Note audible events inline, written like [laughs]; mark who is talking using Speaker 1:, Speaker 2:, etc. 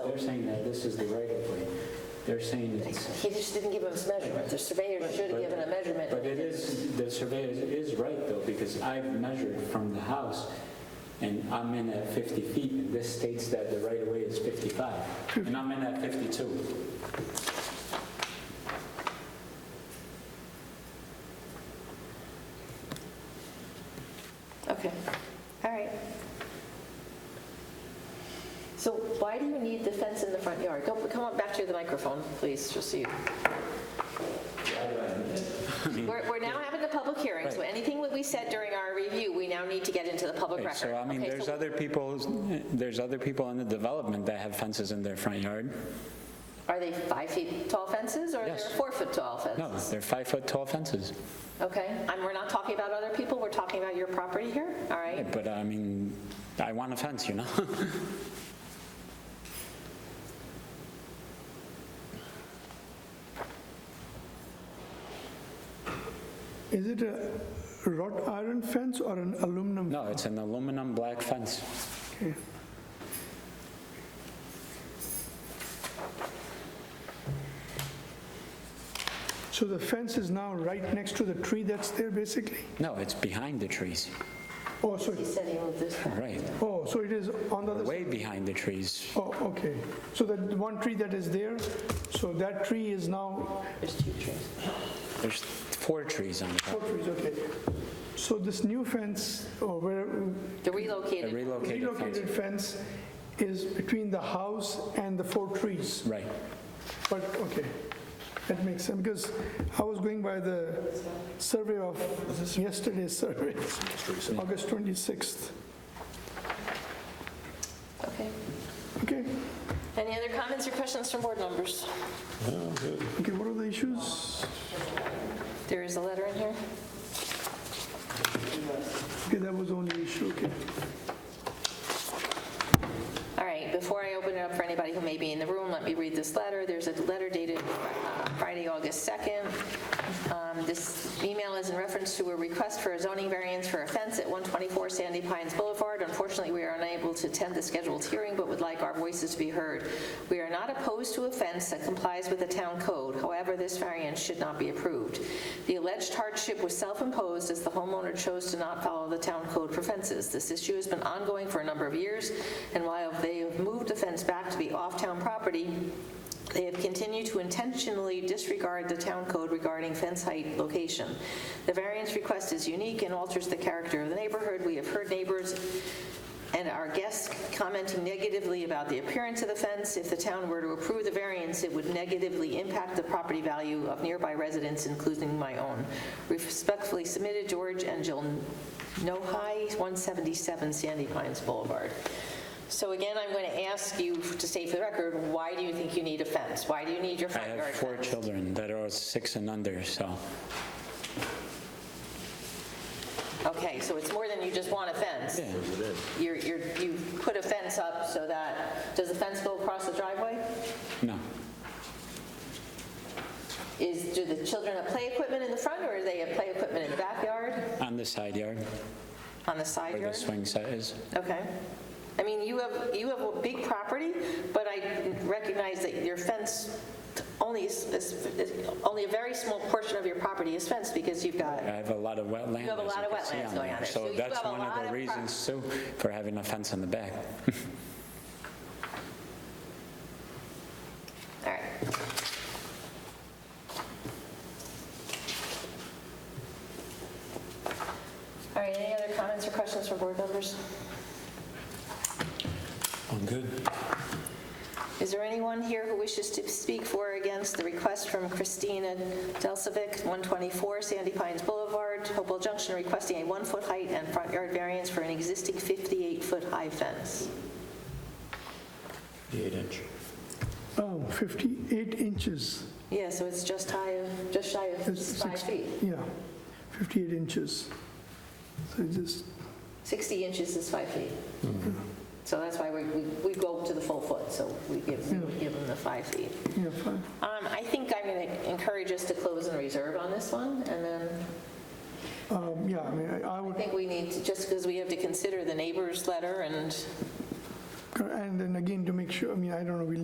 Speaker 1: they're saying that this is the right of way. They're saying it's.
Speaker 2: He just didn't give us measurement. The surveyor should have given a measurement.
Speaker 1: But it is, the surveyor is right though, because I've measured from the house and I'm in at 50 feet and this states that the right of way is 55. And I'm in at 52.
Speaker 2: Okay, all right. So why do you need the fence in the front yard? Go- Come on back to the microphone, please, just
Speaker 1: [laughs]
Speaker 2: so you. We're we're now having the public hearing, so
Speaker 1: Right.
Speaker 2: anything that we said during our review, we now need to get into the public
Speaker 1: Right, So
Speaker 2: record.
Speaker 1: I mean,
Speaker 2: Okay,
Speaker 1: there's
Speaker 2: so-
Speaker 1: other people, there's other people in the development that have fences in their front yard.
Speaker 2: Are they five feet tall fences or they're
Speaker 1: Yes.
Speaker 2: four foot tall
Speaker 1: No,
Speaker 2: fences?
Speaker 1: they're five foot tall fences.
Speaker 2: Okay, and we're not talking about other people, we're talking about your property here, all right?
Speaker 1: But I mean, I want a fence, you know? [laughs]
Speaker 3: Is it a wrought iron fence or an aluminum?
Speaker 1: No, it's an aluminum black fence.
Speaker 3: Okay. So the fence is now right next to the tree that's there, basically?
Speaker 1: No, it's behind the trees,
Speaker 3: Oh, so,
Speaker 2: He said he moved this.
Speaker 1: right,
Speaker 3: oh, so it is on the other side?
Speaker 1: way behind the trees.
Speaker 3: Oh, okay. So that one tree that is there, so that tree is now,
Speaker 2: There's two trees.
Speaker 1: There's four trees on the
Speaker 3: four
Speaker 1: property.
Speaker 3: trees, oh, okay. So this new fence, or where,
Speaker 2: The
Speaker 1: A
Speaker 2: relocated.
Speaker 1: relocated fence.
Speaker 3: relocated fence is between the house and the four trees.
Speaker 1: Right,
Speaker 3: But, okay, that makes sense, because I was going by the survey of yesterday's survey, August 26th.
Speaker 2: Okay.
Speaker 3: Okay,
Speaker 2: Any other comments or questions from board members?
Speaker 3: okay, what are the issues?
Speaker 2: There is a letter in here.
Speaker 3: Okay, that was the only issue, okay.
Speaker 2: All right, before I open it up for anybody who may be in the room, let me read this letter. There's a letter dated uh, Friday, August 2nd. Um, This email is in reference to a request for a zoning variance for a fence at 124 Sandy Pines Boulevard. Unfortunately, we are unable to attend the scheduled hearing, but would like our voices to be heard. We are not opposed to a fence that complies with the town code. However, this variance should not be approved. The alleged hardship was self-imposed as the homeowner chose to not follow the town code for fences. This issue has been ongoing for a number of years, and while they have moved the fence back to be off-town property, they have continued to intentionally disregard the town code regarding fence height location. The variance request is unique and alters the character of the neighborhood. We have heard neighbors and our guests commenting negatively about the appearance of the fence. If the town were to approve the variance, it would negatively impact the property value of nearby residents, including my own. Respectfully submitted, George and Jill Nohai, 177 Sandy Pines Boulevard. So again, I'm going to ask you to say for the record, why do you think you need a fence? Why do you need your
Speaker 1: I
Speaker 2: front yard
Speaker 1: have
Speaker 2: fence?
Speaker 1: four children that are six and under, so,
Speaker 2: Okay, so it's more than you just want a fence.
Speaker 1: yeah,
Speaker 2: You're, you're, you put a fence up so that, does the fence go across the driveway?
Speaker 1: no.
Speaker 2: Is, do the children have play equipment in the front, or do they have play equipment in the backyard,
Speaker 1: On the side yard,
Speaker 2: on the side
Speaker 1: where the
Speaker 2: yard?
Speaker 1: swing set is.
Speaker 2: Okay. I mean, you have, you have a big property, but I recognize that your fence only is, is- is- only a very small portion of your property is fenced, because you've got,
Speaker 1: I have a lot of wetland.
Speaker 2: You have a
Speaker 1: as
Speaker 2: lot of
Speaker 1: can see
Speaker 2: wetlands going on there, so
Speaker 1: So
Speaker 2: you
Speaker 1: that's
Speaker 2: have a
Speaker 1: one
Speaker 2: lot
Speaker 1: of
Speaker 2: of
Speaker 1: the
Speaker 2: pro-
Speaker 1: reasons, too, for having a fence on the back.
Speaker 2: all right. All right, any other comments or questions from board members?
Speaker 4: I'm good.
Speaker 2: Is there anyone here who wishes to speak for or against the request from Christina Delsovic, 124 Sandy Pines Boulevard, Hopewell Junction, requesting a one-foot height and front yard variance for an existing 58-foot high fence?
Speaker 4: Eight inch.
Speaker 3: Oh, 58 inches.
Speaker 2: Yeah, so it's just high, of- just shy of
Speaker 3: It's
Speaker 2: five
Speaker 3: six-
Speaker 2: feet.
Speaker 3: Yeah, 58 inches. So it just,
Speaker 2: 60 inches is five feet. So that's why we, we- we go to the full foot, so we give, we give them the five feet.
Speaker 3: yeah, fine.
Speaker 2: Um, I think I'm going to encourage us to close and reserve on this one, and then
Speaker 3: Um, Yeah, I mean, I- I
Speaker 2: I
Speaker 3: would,
Speaker 2: think we need, to just because we have to consider the neighbor's letter and
Speaker 3: and then again, to make sure, I mean, I don't know, we